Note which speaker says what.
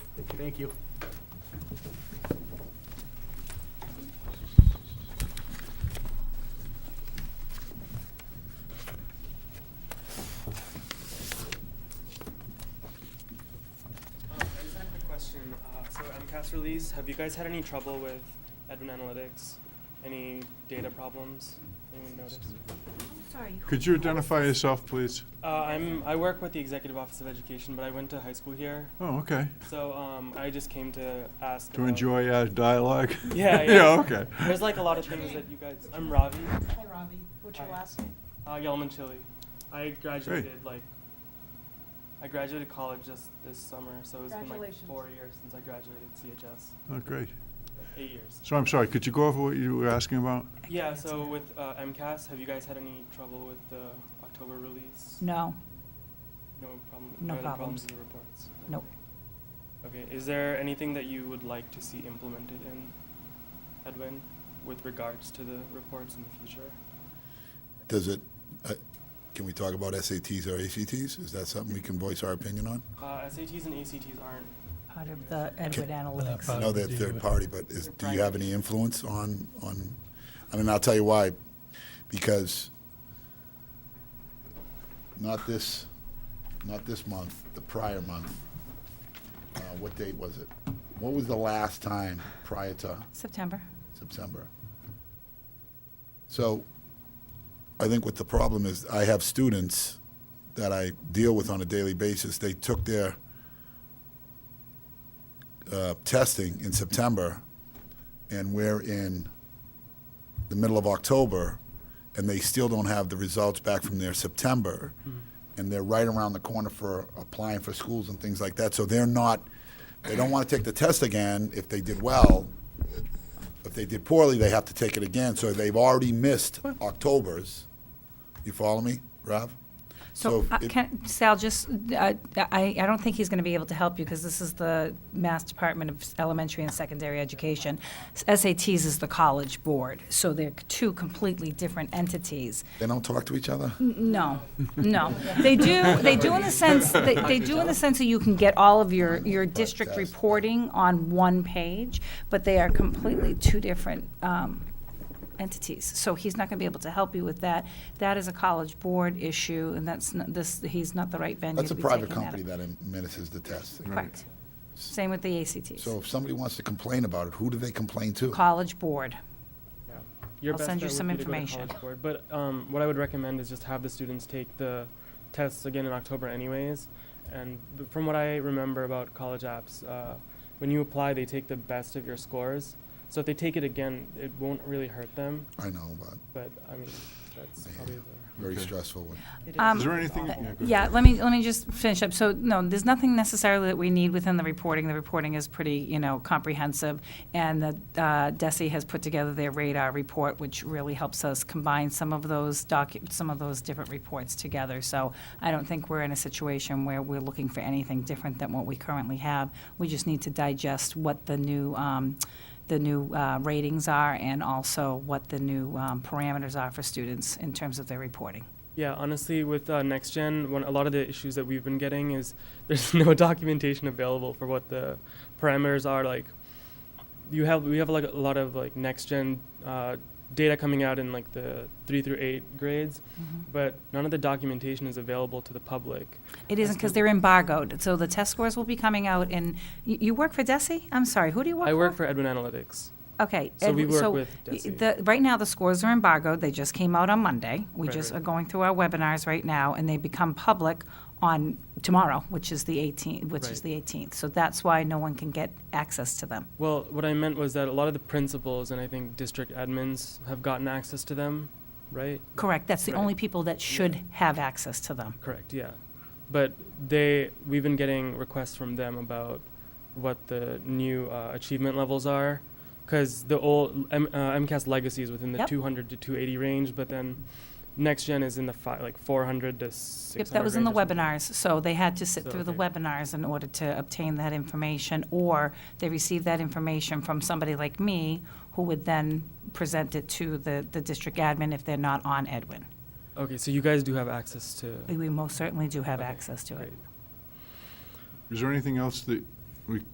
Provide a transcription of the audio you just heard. Speaker 1: Thank you.
Speaker 2: Um, I just had a quick question. Uh, so MCAS release, have you guys had any trouble with Edwin Analytics? Any data problems? Anyone notice?
Speaker 3: Sorry. who-
Speaker 4: Could you identify yourself, please?
Speaker 2: Uh, I'm I work with the Executive Office of Education, but I went to high school here,
Speaker 4: Oh, okay.
Speaker 2: so um, I just came to ask.
Speaker 4: To
Speaker 2: about-
Speaker 4: enjoy our dialogue?
Speaker 2: Yeah, yeah.
Speaker 4: Yeah, okay.
Speaker 2: There's like a lot of
Speaker 3: What's your
Speaker 2: things
Speaker 3: name?
Speaker 2: that you guys. I'm Ravi,
Speaker 3: Hi, Ravi. What's your
Speaker 2: Hi.
Speaker 3: last name?
Speaker 2: uh, Yelman Chili. I graduated like. I graduated college just this summer, so it's been like
Speaker 3: Congratulations.
Speaker 2: four years since I graduated CHS.
Speaker 4: Oh, great.
Speaker 2: Eight years.
Speaker 4: So I'm sorry, could you go over what you were asking about?
Speaker 2: Yeah, so with uh, MCAS, have you guys had any trouble with the October release?
Speaker 5: No,
Speaker 2: No problem.
Speaker 5: No
Speaker 2: other
Speaker 5: problems.
Speaker 2: problems with the reports.
Speaker 5: Nope.
Speaker 2: Okay. Okay. Is there anything that you would like to see implemented in Edwin with regards to the reports in the future?
Speaker 6: Does it, uh, can we talk about SATs or ACTs? Is that something we can voice our opinion on?
Speaker 2: Uh, SATs and ACTs aren't.
Speaker 5: part of the Edward
Speaker 6: I
Speaker 5: Analytics.
Speaker 6: know they're third party, but is,
Speaker 2: They're
Speaker 6: do you have
Speaker 2: private.
Speaker 6: any influence on, on, I mean, I'll tell you why, because not this, not this month, the prior month, uh, what date was it? What was the last time prior to
Speaker 5: September.
Speaker 6: September. So I think what the problem is, I have students that I deal with on a daily basis. They took their uh, testing in September, and we're in the middle of October, and they still don't have the results back from their September. And they're right around the corner for applying for schools and things like that. So they're not, they don't want to take the test again if they did well, if they did poorly, they have to take it again, so they've already missed October's. You follow me, Rob?
Speaker 5: So, uh,
Speaker 6: it-
Speaker 5: can, Sal, just, uh, I, I don't think he's going to be able to help you because this is the Mass Department of Elementary and Secondary Education. SATs is the College Board, so they're two completely different entities.
Speaker 6: They don't talk to each other?
Speaker 5: No, no. They do, they do in the sense, they, they do in the sense that you can get all of your, your district reporting on one page, but they are completely two different, um, entities. So he's not gonna be able to help you with that. That is a college board issue, and that's, not this, he's not the right venue
Speaker 6: That's
Speaker 5: to
Speaker 6: a
Speaker 5: be
Speaker 6: private
Speaker 5: taking
Speaker 6: company
Speaker 5: up.
Speaker 6: that administers the test.
Speaker 5: Correct. Same with the ACTs.
Speaker 6: So if somebody wants to complain about it, who do they complain to?
Speaker 5: College board.
Speaker 2: Yeah. Your
Speaker 5: I'll
Speaker 2: best
Speaker 5: send you
Speaker 2: bet would
Speaker 5: some
Speaker 2: be to go to
Speaker 5: information.
Speaker 2: College Board, But um, what I would recommend is just have the students take the tests again in October anyways. And th- from what I remember about college apps, uh, when you apply, they take the best of your scores. So if they take it again, it won't really hurt them.
Speaker 6: I know, but
Speaker 2: But I mean, that's
Speaker 6: Yeah.
Speaker 2: probably the.
Speaker 6: very
Speaker 4: Okay.
Speaker 6: stressful one.
Speaker 5: Um,
Speaker 4: Is there anything? go
Speaker 5: Yeah,
Speaker 4: ahead.
Speaker 5: let me, let me just finish up. So, no, there's nothing necessarily that we need within the reporting. The reporting is pretty, you know, comprehensive. And the, uh, DESI has put together their radar report, which really helps us combine some of those docu, some of those different reports together. So I don't think we're in a situation where we're looking for anything different than what we currently have. We just need to digest what the new, um, the new uh, ratings are and also what the new um, parameters are for students in terms of their reporting.
Speaker 2: Yeah, honestly, with uh, next gen, one, a lot of the issues that we've been getting is there's no documentation available for what the parameters are. Like, you have we have like a lot of like next gen uh, data coming out in like the three through eight grades, but none of the documentation is available to the public.
Speaker 5: It isn't because they're embargoed. So the test scores will be coming out in, you, you work for DESI? I'm sorry, who do you work for?
Speaker 2: I work for Edwin Analytics.
Speaker 5: Okay.
Speaker 2: so
Speaker 5: and
Speaker 2: we work
Speaker 5: so
Speaker 2: with
Speaker 5: y-
Speaker 2: DESI.
Speaker 5: The, right now, the scores are embargoed. They just came out on Monday. We
Speaker 2: Right,
Speaker 5: just
Speaker 2: right.
Speaker 5: are going through our webinars right now, and they become public on tomorrow, which is the 18th, which is
Speaker 2: Right.
Speaker 5: the 18th. So that's why no one can get access to them.
Speaker 2: Well, what I meant was that a lot of the principals and I think district admins have gotten access to them, right?
Speaker 5: Correct. That's the
Speaker 2: Right.
Speaker 5: only people that should have access to them.
Speaker 2: Correct, yeah. But they, we've been getting requests from them about what the new uh, achievement levels are, because the old M, uh, MCAS legacy is within the
Speaker 5: Yep.
Speaker 2: 200 to 280 range, but then next gen is in the fi- like 400 to 600.
Speaker 5: Yep, that was in the
Speaker 2: range or something.
Speaker 5: webinars, so they had to sit
Speaker 2: So,
Speaker 5: through the
Speaker 2: okay.
Speaker 5: webinars in order to obtain that information, or they received that information from somebody like me, who would then present it to the, the district admin if they're not on Edwin.
Speaker 2: Okay, so you guys do have access to.
Speaker 5: We- We most certainly do have
Speaker 2: Okay,
Speaker 5: access to it.
Speaker 2: Great.
Speaker 4: Is there anything else that we